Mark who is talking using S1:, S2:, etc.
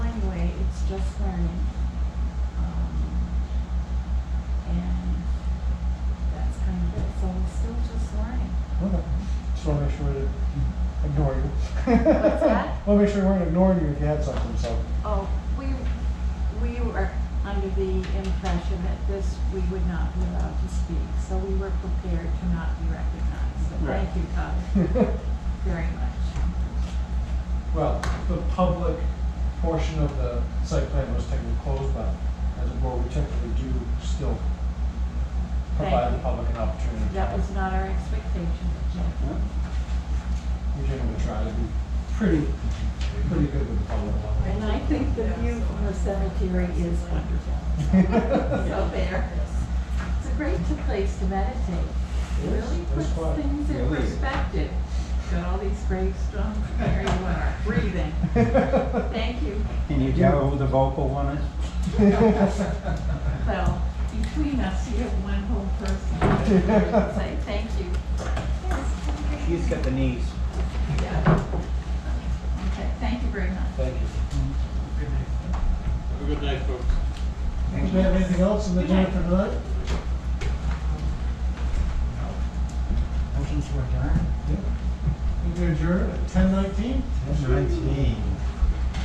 S1: learning. Um, And that's kind of it, so we're still just learning.
S2: Okay. Just want to make sure we didn't ignore you.
S1: What's that?
S2: Want to make sure we weren't ignoring you if you had something, so.
S1: Oh, we, we were under the impression that this, we would not be allowed to speak, so we were prepared to not be recognized. So
S2: Right.
S1: thank you, Todd, very much.
S2: Well, the public portion of the site plan was technically closed, but as a board, we technically do still provide
S1: Thank
S2: the
S1: you.
S2: public an opportunity. to-
S1: That was not our expectation, Jeff.
S2: We generally try to be pretty, pretty good with the public.
S1: And I think the view from the cemetery is wonderful. So there. It's a great t- place to meditate. It
S2: It is.
S1: really
S2: It's
S1: puts
S2: quiet.
S1: things in
S3: Really.
S1: perspective. Got all these great stones there, you are breathing. Thank you.
S3: Can you tell who the vocal one is?
S1: Well, between us, you have one whole person. I would Say thank you. Yes.
S3: She's got the knees.
S1: Yeah. Okay, thank you very much.
S2: Thank you.
S4: Have a good night, folks.
S2: Do we have anything else in the agenda for tonight?
S5: Motion to adjourn?
S2: We can adjourn at ten nineteen?
S3: Nineteen.